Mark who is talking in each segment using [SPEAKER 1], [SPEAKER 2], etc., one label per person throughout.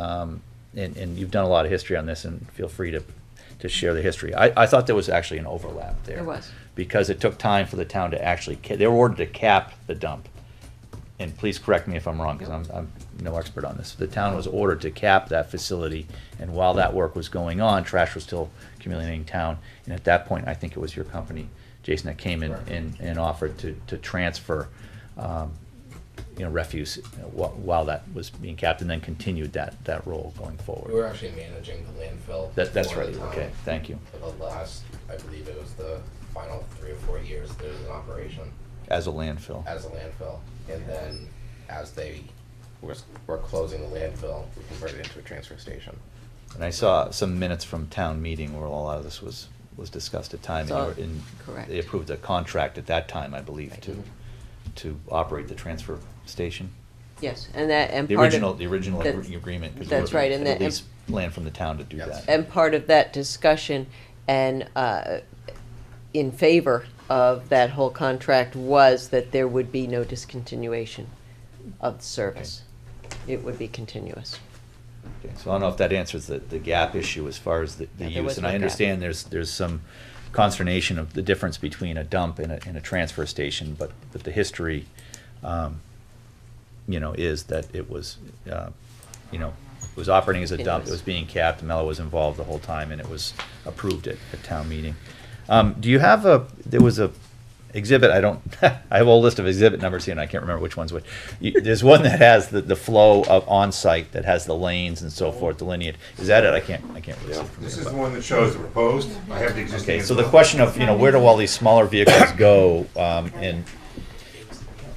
[SPEAKER 1] Um, and, and you've done a lot of history on this, and feel free to, to share the history. I, I thought there was actually an overlap there.
[SPEAKER 2] There was.
[SPEAKER 1] Because it took time for the town to actually, ca- they were ordered to cap the dump. And please correct me if I'm wrong, because I'm, I'm no expert on this. The town was ordered to cap that facility, and while that work was going on, trash was still accumulating in town. And at that point, I think it was your company, Jason, that came in
[SPEAKER 3] Correct.
[SPEAKER 1] and, and offered to, to transfer, um, you know, refuse while, while that was being capped, and then continued that, that role going forward.
[SPEAKER 3] We were actually managing the landfill.
[SPEAKER 1] That, that's
[SPEAKER 3] for
[SPEAKER 1] right,
[SPEAKER 3] the town.
[SPEAKER 1] okay, thank you.
[SPEAKER 3] For the last, I believe it was the final three or four years, there was an operation
[SPEAKER 1] As a landfill.
[SPEAKER 3] as a landfill. And then as they were, were closing the landfill, we converted it into a transfer station.
[SPEAKER 1] And I saw some minutes from town meeting where a lot of this was, was discussed at time. and you
[SPEAKER 2] So-
[SPEAKER 1] were in-
[SPEAKER 2] correct.
[SPEAKER 1] They approved a contract at that time, I believe,
[SPEAKER 2] Right.
[SPEAKER 1] to, to operate the transfer station.
[SPEAKER 2] Yes, and that, and
[SPEAKER 1] The
[SPEAKER 2] part of-
[SPEAKER 1] original, the original
[SPEAKER 2] that's-
[SPEAKER 1] agree- agreement. 'cause we
[SPEAKER 2] That's
[SPEAKER 1] were-
[SPEAKER 2] right, and
[SPEAKER 1] had
[SPEAKER 2] that,
[SPEAKER 1] At least land from the town to do
[SPEAKER 3] Yes.
[SPEAKER 1] that.
[SPEAKER 2] and part of that discussion and, uh, in favor of that whole contract was that there would be no discontinuation of the service. It would be continuous.
[SPEAKER 1] Okay, So I don't know if that answers the, the gap issue as far as the, the
[SPEAKER 2] Yeah,
[SPEAKER 1] use.
[SPEAKER 2] there was
[SPEAKER 1] And
[SPEAKER 2] no
[SPEAKER 1] I
[SPEAKER 2] gap.
[SPEAKER 1] understand there's, there's some consternation of the difference between a dump and a, and a transfer station, but, but the history, um, you know, is that it was, uh, you know, it was operating as a dump, it was being capped, Mello was involved the whole time, and it was approved at, at town meeting. Um, do you have a, there was a exhibit, I don't, I have a whole list of exhibit numbers here, and I can't remember which ones which. You- There's one that has the, the flow of on-site, that has the lanes and so forth delineated. Is that it? I can't, I can't really see from
[SPEAKER 4] This
[SPEAKER 1] here,
[SPEAKER 4] is the
[SPEAKER 1] but-
[SPEAKER 4] one that shows the proposed, I have the existing.
[SPEAKER 1] Okay,
[SPEAKER 4] as
[SPEAKER 1] so the
[SPEAKER 4] well.
[SPEAKER 1] question of, you know, where do all these smaller vehicles go, um, and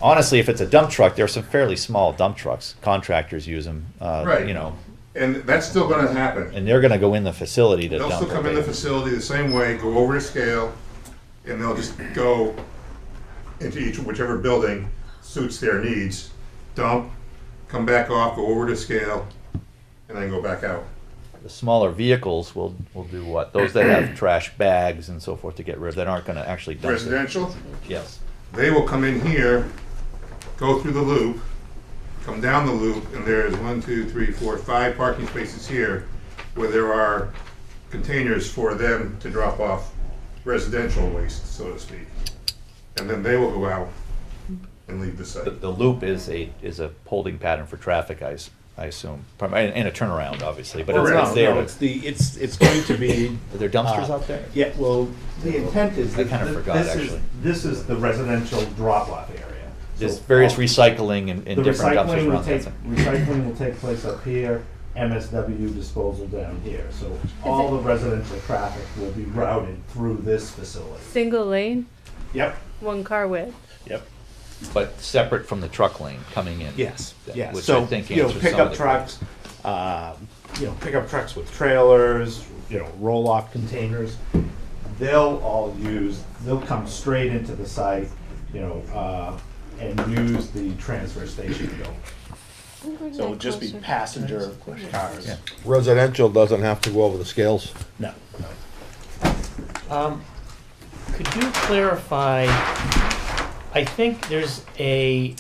[SPEAKER 1] honestly, if it's a dump truck, there are some fairly small dump trucks, contractors use them, uh,
[SPEAKER 4] Right.
[SPEAKER 1] you know,
[SPEAKER 4] And that's still gonna happen.
[SPEAKER 1] and they're gonna go in the facility to
[SPEAKER 4] They'll still
[SPEAKER 1] dump
[SPEAKER 4] come in the
[SPEAKER 1] it.
[SPEAKER 4] facility the same way, go over to scale, and they'll just go into each, whichever building suits their needs, dump, come back off, go over to scale, and then go back out.
[SPEAKER 1] The smaller vehicles will, will do what? Those that have trash bags and so forth to get rid of, that aren't gonna actually dump it.
[SPEAKER 4] Residential,
[SPEAKER 1] Yes,
[SPEAKER 4] they will come in here, go through the loop, come down the loop, and there is one, two, three, four, five parking spaces here where there are containers for them to drop off residential waste, so to speak. And then they will go out and leave the
[SPEAKER 1] the,
[SPEAKER 4] site.
[SPEAKER 1] the loop is a, is a holding pattern for traffic, I, s- I assume, Prim- and and a turnaround, obviously, but it's
[SPEAKER 4] Correct.
[SPEAKER 1] not
[SPEAKER 5] Oh, No, no,
[SPEAKER 1] there.
[SPEAKER 5] it's the, it's, it's going to be,
[SPEAKER 1] Are there dumpsters out there?
[SPEAKER 5] yeah, well,
[SPEAKER 6] The intent is.
[SPEAKER 1] I kinda
[SPEAKER 6] that th-
[SPEAKER 1] forgot,
[SPEAKER 6] this is-
[SPEAKER 1] actually.
[SPEAKER 6] This is the residential drop-off area.
[SPEAKER 1] There's
[SPEAKER 6] So
[SPEAKER 1] various
[SPEAKER 6] all-
[SPEAKER 1] recycling and,
[SPEAKER 6] the
[SPEAKER 1] and different dumpsters
[SPEAKER 6] recycling will
[SPEAKER 1] around that
[SPEAKER 6] take-
[SPEAKER 1] thing.
[SPEAKER 6] Recycling will take place up here, MSW disposal down here, so all the residential traffic will be routed through this facility.
[SPEAKER 7] Single lane,
[SPEAKER 6] Yep,
[SPEAKER 7] one car width.
[SPEAKER 6] yep.
[SPEAKER 1] But separate from the truck lane coming in.
[SPEAKER 5] yes,
[SPEAKER 1] That-
[SPEAKER 5] yes.
[SPEAKER 1] Which I
[SPEAKER 5] So,
[SPEAKER 1] think
[SPEAKER 5] you know,
[SPEAKER 1] answers some of
[SPEAKER 5] pickup
[SPEAKER 1] the.
[SPEAKER 5] trucks, uh, you know, pickup trucks with trailers, you know, roll-off containers.
[SPEAKER 6] They'll all use, they'll come straight into the site, you know, uh, and use the transfer station building.
[SPEAKER 5] So it'll just be passenger cars.
[SPEAKER 1] Yeah.
[SPEAKER 8] Residential doesn't have to go over the scales.
[SPEAKER 5] No.
[SPEAKER 9] Um, Could you clarify, I think there's a,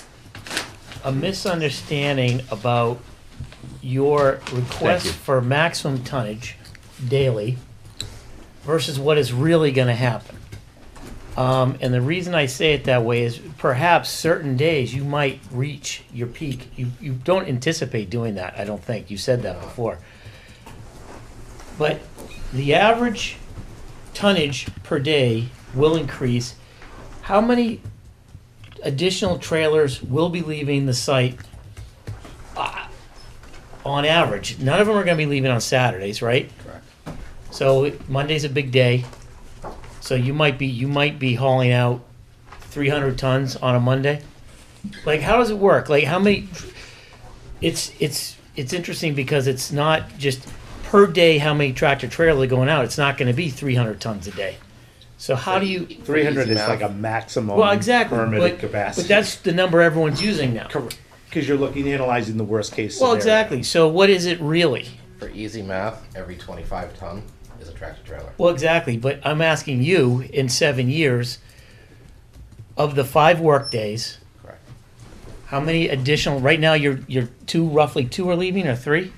[SPEAKER 9] a misunderstanding about your
[SPEAKER 1] you.
[SPEAKER 9] request for maximum tonnage daily versus what is really gonna happen. Um, and the reason I say it that way is perhaps certain days you might reach your peak. You, you don't anticipate doing that, I don't think. You said that before. But the average tonnage per day will increase. How many additional trailers will be leaving the site uh, on average? None of them are going to be leaving on Saturdays, right?
[SPEAKER 3] Correct.
[SPEAKER 9] So Monday's a big day. So you might be you might be hauling out 300 tons on a Monday. Like how does it work? Like how many it's it's it's interesting because it's not just per day how many tractor trailers are going out. It's not going to be 300 tons a day. So how do you
[SPEAKER 5] Three hundred is
[SPEAKER 3] Easy
[SPEAKER 5] like a
[SPEAKER 3] math.
[SPEAKER 5] maximum
[SPEAKER 9] well, exactly.
[SPEAKER 5] permitted
[SPEAKER 9] but,
[SPEAKER 5] capacity.
[SPEAKER 9] but that's the number everyone's using now.
[SPEAKER 5] Correct, because you're looking, analyzing the worst-case scenario.
[SPEAKER 9] Well, exactly. So what is it really?
[SPEAKER 3] For easy math, every twenty-five ton is a tractor trailer.
[SPEAKER 9] Well, exactly. But I'm asking you in seven years, of the five work days,
[SPEAKER 3] Correct.
[SPEAKER 9] how many additional? Right now, you're you're two roughly two are leaving or three.